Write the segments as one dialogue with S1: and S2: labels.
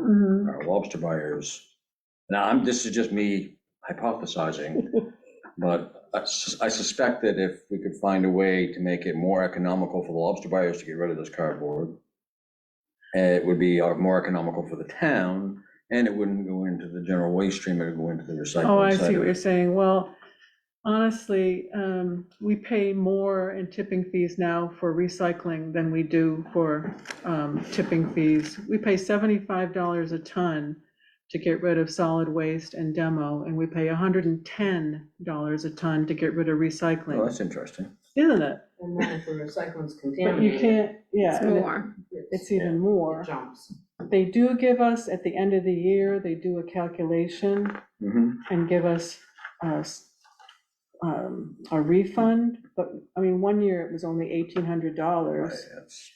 S1: Mhm.
S2: our lobster buyers. Now, I'm, this is just me hypothesizing, but I sus- I suspect that if we could find a way to make it more economical for the lobster buyers to get rid of this cardboard, eh, it would be uh, more economical for the town, and it wouldn't go into the general waste stream, it would go into the recycling.
S1: Oh, I
S2: side
S1: see
S2: of
S1: what
S2: it.
S1: you're saying. Well, honestly, um, we pay more in tipping fees now for recycling than we do for um, tipping fees. We pay seventy-five dollars a ton to get rid of solid waste and demo, and we pay hundred and ten dollars a ton to get rid of
S2: Oh,
S1: recycling,
S2: that's interesting.
S1: isn't it?
S3: And then if the recycling's
S1: But you
S3: contaminated,
S1: can't, yeah,
S4: It's
S1: and it-
S4: more.
S3: it's-
S1: it's even more.
S3: it jumps.
S1: They do give us, at the end of the year, they do a calculation
S2: Mhm.
S1: and give us uh, s- um, a refund, but, I mean, one year it was only eighteen
S2: Right,
S1: hundred dollars,
S2: that's-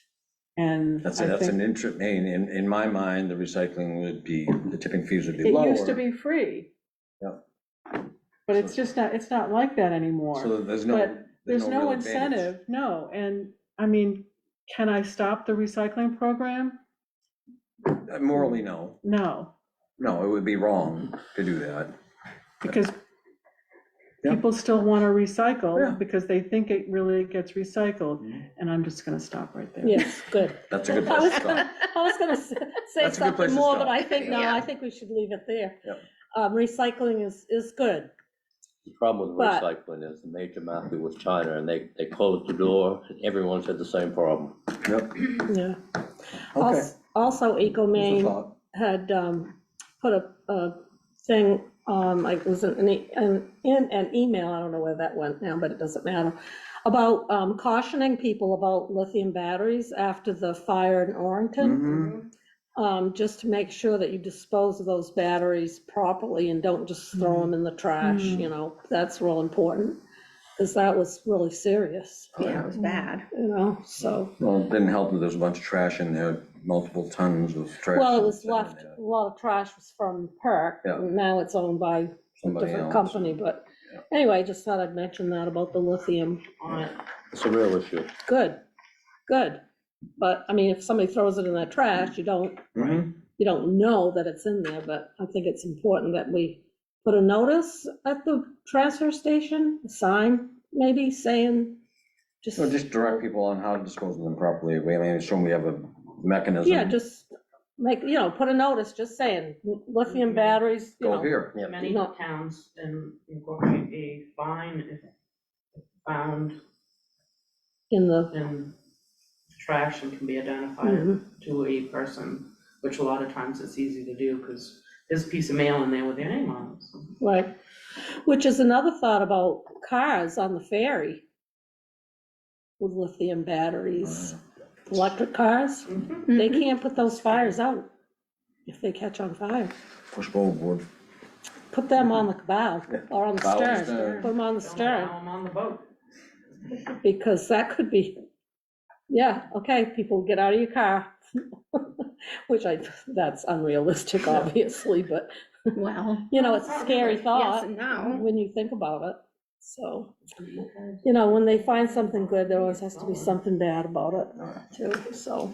S1: and
S2: That's,
S1: I
S2: that's an
S1: think
S2: interest, in, in, in my mind, the recycling would be, the tipping fees would be
S1: it
S2: lower.
S1: used to be free.
S2: Yeah.
S1: But it's just not, it's not like that
S2: So
S1: anymore.
S2: there's no.
S1: But There's no
S2: real advantage.
S1: incentive, no, and, I mean, can I stop the recycling program?
S2: Uh, Morally, no.
S1: No,
S2: No, it would be wrong to do that.
S1: because
S2: Yeah.
S1: people still want to
S2: Yeah. Mm-hmm.
S1: recycle, because they think it really gets recycled, and I'm just gonna stop right there.
S5: Yes, good.
S2: That's a good
S5: I
S2: place
S5: was
S2: to stop.
S5: gonna, I was gonna s- say
S2: That's a good place
S5: something
S2: to
S5: more, but
S2: stop.
S5: I think, no,
S4: Yeah.
S5: I think we should leave it there.
S2: Yep.
S5: Um, recycling is, is good.
S6: The problem with
S5: But-
S6: recycling is the major market was China, and they, they closed the door, and everyone's had the same problem.
S2: Yep,
S5: Yeah.
S2: okay.
S5: Als- Also, Eco
S2: Just a
S5: Maine
S2: thought.
S5: had um, put a, a thing, um, like, it was an, e- an- in an email, I don't know where that went now, but it doesn't matter, about um, cautioning people about lithium batteries after the fire in Orrington,
S2: Mhm.
S5: um, just to make sure that you dispose of those batteries properly and don't just throw them in the trash,
S1: Mhm.
S5: you know, that's real important, because that was really serious,
S4: Yeah,
S1: Mm-hmm.
S4: it was bad.
S5: you know, so.
S2: Well, it didn't help that there's a bunch of trash in there, multiple tons of trash.
S5: Well, it was
S2: sitting in
S5: left,
S2: there.
S5: a lot of trash was from Perk,
S2: Yeah.
S5: and now it's owned by a
S2: Somebody
S5: different
S2: else.
S5: company, but
S2: Yeah.
S5: anyway, I just thought I'd mention that about the lithium on it.
S6: It's a real issue.
S5: Good, good. But, I mean, if somebody throws it in the trash, you don't,
S2: Mhm.
S5: you don't know that it's in there, but I think it's important that we put a notice at the transfer station, a sign maybe saying, just,
S2: So just direct people on how to dispose of them properly. We, I mean, assume we have a mechanism.
S5: yeah, just like, you know, put a notice, just saying lithium batteries, you
S2: Mm-hmm. Go
S5: know,
S2: here.
S3: Many
S5: No.
S3: towns in- incorporate a fine if found
S5: in the,
S3: in trash and can be
S1: Mm-hmm.
S3: identified
S5: Mhm.
S3: to a person, which a lot of times it's easy to do because there's a piece of mail in there with their name on it. so.
S5: Right, which is another thought about cars on the ferry with lithium batteries,
S2: Uh.
S5: electric cars.
S3: Mhm.
S5: They can't put those fires out if they catch on fire.
S2: Push board.
S5: Put them on the bow or on the
S2: Bow and
S5: stern,
S2: stern.
S5: put them on the
S3: Don't allow
S5: stern,
S3: 'em on the boat.
S5: because that could be, yeah, okay, people get out of your car. Which I, that's unrealistic, obviously, but,
S4: Well,
S5: you know, it's a scary
S4: yes
S5: thought
S4: and no.
S5: when you think about it, so. you know, when they find something good, there always has to be something bad about it, too, so.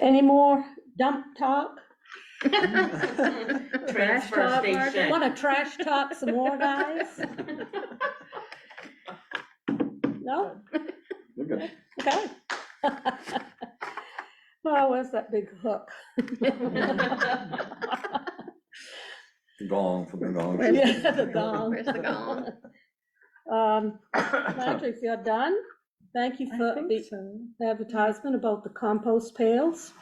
S5: Any more dump talk?
S3: Transfer
S4: talk, Margaret.
S3: station.
S5: Wanna trash talk some more, guys? No?
S2: We're good.
S5: Okay. Oh, where's that big hook?
S2: Gong for the gong.
S4: Where's-
S5: Yeah, the gong.
S4: Where's the gong?
S5: Um, Patrick, you're done? Thank you
S1: I
S5: for
S1: think
S5: the
S1: so.
S5: advertisement about the compost pails.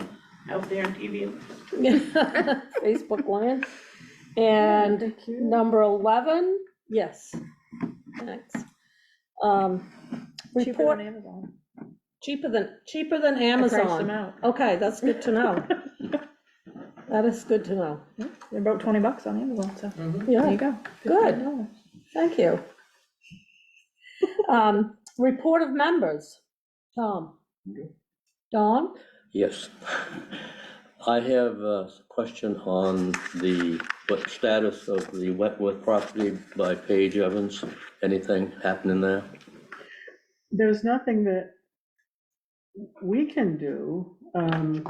S3: Out there on TV.
S5: Facebook land. And number 11, yes. Thanks. Um,
S4: Cheaper
S5: Report,
S4: than Amazon.
S5: cheaper than, cheaper than
S1: I Priced them
S5: Amazon.
S1: out.
S5: Okay, that's good to know. That is good to know.
S4: They broke twenty bucks on Amazon, so there
S5: Yeah,
S4: you go.
S5: Oh, Good.
S4: $15.
S5: thank you. Um, Report of members, Tom. Don,
S6: Yes. I have a question on the, what status of the Wentworth property by Paige Evans? Anything happening there?
S1: There's nothing that we can do. um,